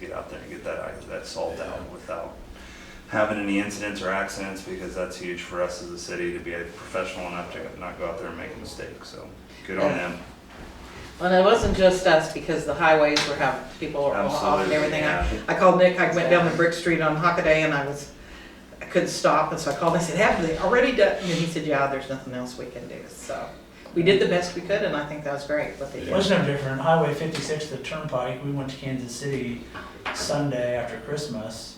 get out there and get that, that salt out without having any incidents or accidents, because that's huge for us as a city to be professional enough to not go out there and make mistakes, so good on them. And it wasn't just us because the highways were having, people were all off and Absolutely, everything. I- yeah. I called Nick, I went down to Brick Street on Hockaday and I was, I couldn't stop. And so I called, I said, have they already done? And he said, yeah, there's nothing else we can do. So we did the best we could and I think that was great what they It did. was no different. Highway fifty-six, the turnpike, we went to Kansas City Sunday after Christmas,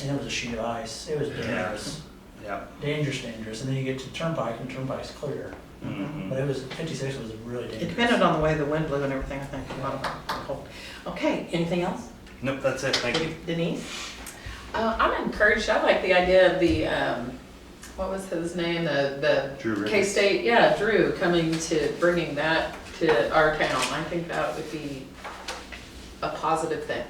and it was a sheet of ice. It was dangerous, Yeah. dangerous, dangerous. And then you get to turnpike and turnpike's clear. Mhm. But it was, fifty-six was really It dangerous. depended on the way the wind blew and everything, I think, a lot of it cold. Okay, anything else? Nope, that's it, thank you. Denise? Uh, I'm encouraged. I like the idea of the, um, what was his name? The, Drew the Ritter. K-State, yeah, Drew coming to, bringing that to our town. I think that would be a positive thing.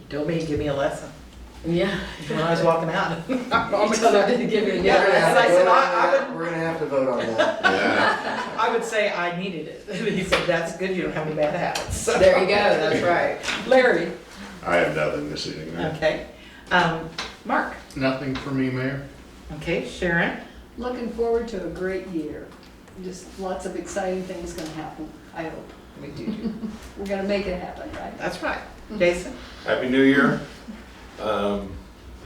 You told me, give me a lesson. Yeah. When I was walking out. You told her to give me a Yeah, lesson. and I said, I, I would We're gonna have to vote on that. Yeah. I would say I needed it. He said, that's good, you don't have any bad habits. So- There you go, that's right. Larry, I have nothing this evening. ma'am. okay. Um, Mark, Nothing for me, Mayor. okay, Sharon, Looking forward to a great year. Just lots of exciting things gonna happen, I hope. we do do, We're gonna make it happen, right? that's right. Jason, Happy New Year. Um,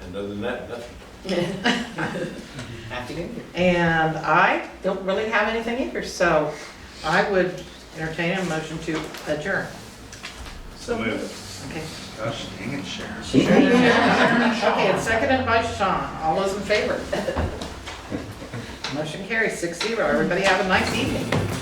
and other than that, nothing. happy new year. And I don't really have anything either, so I would entertain a motion to adjourn. So moved. Okay. Gosh, dang it, Sharon. Okay, and seconded by Sean, all those in favor? Motion carries six zero, everybody have a nice evening.